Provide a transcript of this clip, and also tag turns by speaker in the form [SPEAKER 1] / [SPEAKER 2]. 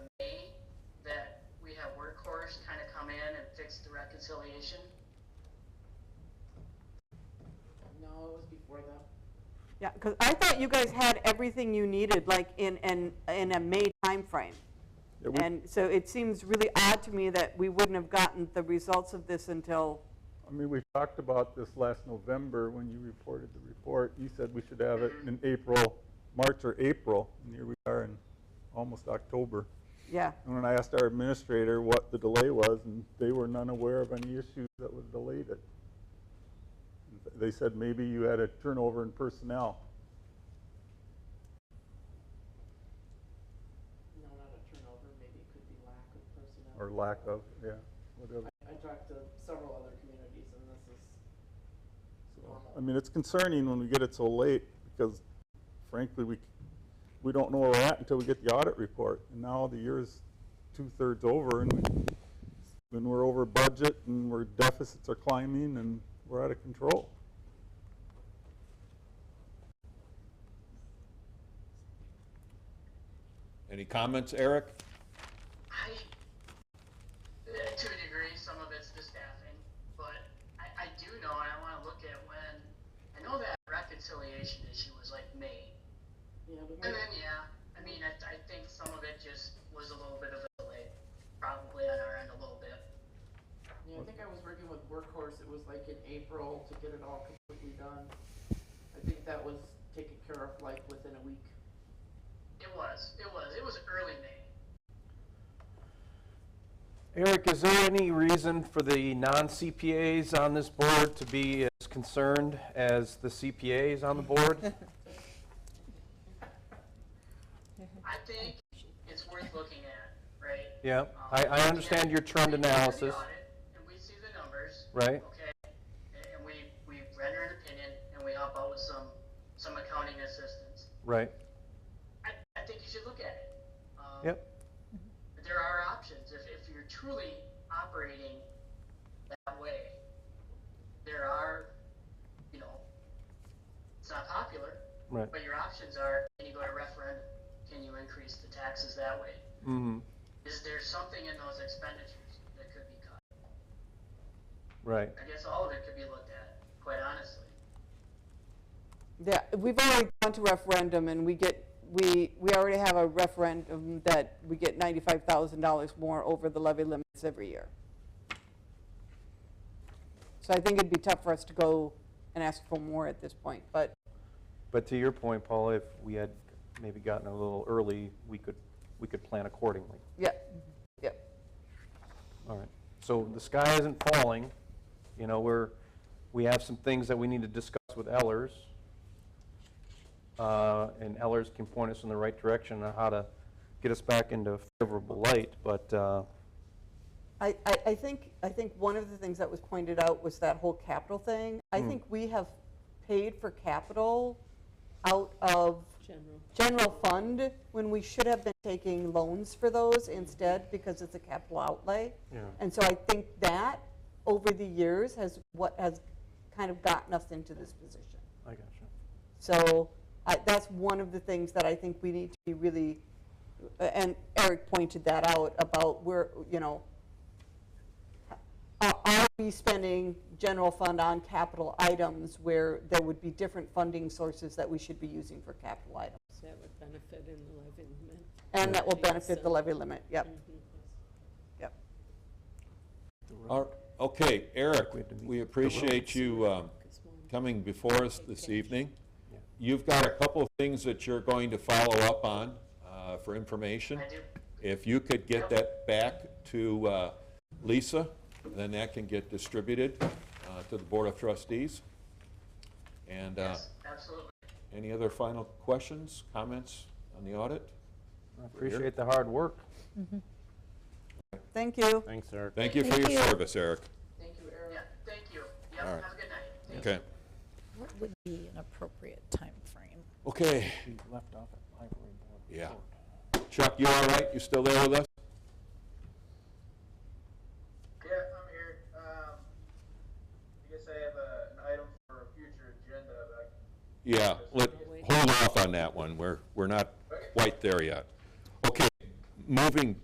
[SPEAKER 1] reconciliation?
[SPEAKER 2] No, it was before though.
[SPEAKER 3] Yeah, because I thought you guys had everything you needed, like in, in, in a May timeframe.
[SPEAKER 4] Yeah, we-
[SPEAKER 3] And so it seems really odd to me that we wouldn't have gotten the results of this until,
[SPEAKER 4] I mean, we talked about this last November when you reported the report. You said we should have it in April, March or April, and here we are in almost October.
[SPEAKER 3] yeah.
[SPEAKER 4] And when I asked our administrator what the delay was, and they were none aware of any issues that would delay it. They said maybe you had a turnover in personnel.
[SPEAKER 2] No, not a turnover, maybe it could be lack of personnel.
[SPEAKER 4] Or lack of, yeah, whatever.
[SPEAKER 2] I, I talked to several other communities and this is normal.
[SPEAKER 4] I mean, it's concerning when we get it so late, because frankly, we, we don't know where we're at until we get the audit report. And now the year's two-thirds over, and we- when we're over budget, and we're deficits are climbing, and we're out of control.
[SPEAKER 5] Any comments, Eric?
[SPEAKER 1] I, eh, to a degree, some of it's the staffing, but I, I do know, and I wanna look at when, I know that reconciliation issue was like May.
[SPEAKER 2] Yeah, we
[SPEAKER 1] And
[SPEAKER 2] might,
[SPEAKER 1] then, yeah, I mean, I, I think some of it just was a little bit of a delay, probably on our end a little bit.
[SPEAKER 2] yeah, I think I was working with Workhorse, it was like in April to get it all completely done. I think that was taken care of like within a week.
[SPEAKER 1] It was, it was, it was early May.
[SPEAKER 6] Eric, is there any reason for the non-CPAs on this board to be as concerned as the CPAs on the board?
[SPEAKER 1] I think it's worth looking at, right?
[SPEAKER 6] Yeah, I, I understand your trend analysis,
[SPEAKER 1] And we see the numbers,
[SPEAKER 6] right?
[SPEAKER 1] okay? And- And we, we render an opinion and we help out with some, some accounting assistance.
[SPEAKER 6] Right,
[SPEAKER 1] I, I think you should look at it. Um,
[SPEAKER 6] yep,
[SPEAKER 1] There are options. If, if you're truly operating that way, there are, you know, it's not popular,
[SPEAKER 6] right.
[SPEAKER 1] but your options are, can you go to referendum? Can you increase the taxes that way?
[SPEAKER 6] hmm
[SPEAKER 1] Is there something in those expenditures that could be cut?
[SPEAKER 6] right.
[SPEAKER 1] I guess all of it could be looked at, quite honestly.
[SPEAKER 3] Yeah, we've already gone to referendum and we get, we, we already have a referendum that we get $95,000 more over the levy limits every year. So I think it'd be tough for us to go and ask for more at this point, but
[SPEAKER 6] But to your point, Paul, if we had maybe gotten a little early, we could, we could plan accordingly.
[SPEAKER 3] yeah, yeah.
[SPEAKER 6] All right. So the sky isn't falling, you know, we're, we have some things that we need to discuss with Ellers. Uh, And Ellers can point us in the right direction on how to get us back into favorable light, but, uh,
[SPEAKER 3] I, I, I think, I think one of the things that was pointed out was that whole capital thing. I think we have paid for capital out of
[SPEAKER 2] General.
[SPEAKER 3] general fund when we should have been taking loans for those instead because it's a capital outlay.
[SPEAKER 6] Yeah.
[SPEAKER 3] And so I think that over the years has what has kind of gotten us into this position.
[SPEAKER 6] I got you.
[SPEAKER 3] So I that's one of the things that I think we need to be really, uh, and Eric pointed that out about where, you know, are are we spending general fund on capital items where there would be different funding sources that we should be using for capital items?
[SPEAKER 7] That would benefit in the levy limit. Mm-hmm.
[SPEAKER 3] And that will
[SPEAKER 7] Right,
[SPEAKER 3] benefit the
[SPEAKER 7] so-
[SPEAKER 3] levy limit, yep, yep.
[SPEAKER 5] All- Okay, Eric,
[SPEAKER 6] We had to meet
[SPEAKER 5] we appreciate you um, coming before us this evening. You've got a couple of things that you're going to follow up on uh, for information.
[SPEAKER 1] I do.
[SPEAKER 5] If you could get that back to uh, Lisa, then that can get distributed uh, to the Board of Trustees. And uh,
[SPEAKER 1] Yes, absolutely.
[SPEAKER 5] any other final questions, comments on the audit?
[SPEAKER 6] I appreciate the hard work.
[SPEAKER 3] Thank you.
[SPEAKER 8] Thanks, Eric.
[SPEAKER 5] Thank you for your service, Eric.
[SPEAKER 2] Thank you, Eric.
[SPEAKER 1] Yeah, thank you.
[SPEAKER 5] All
[SPEAKER 1] Yep,
[SPEAKER 5] right.
[SPEAKER 1] have a good night.
[SPEAKER 5] Okay.
[SPEAKER 7] What would be an appropriate timeframe?
[SPEAKER 5] Okay,
[SPEAKER 6] We left off at library board.
[SPEAKER 5] yeah. Chuck, you all right? You still there with us?
[SPEAKER 9] Yeah, I'm here. Um, I guess I have a, an item for a future agenda, but
[SPEAKER 5] Yeah, let, hold off on that one, we're, we're not quite there yet. Okay, moving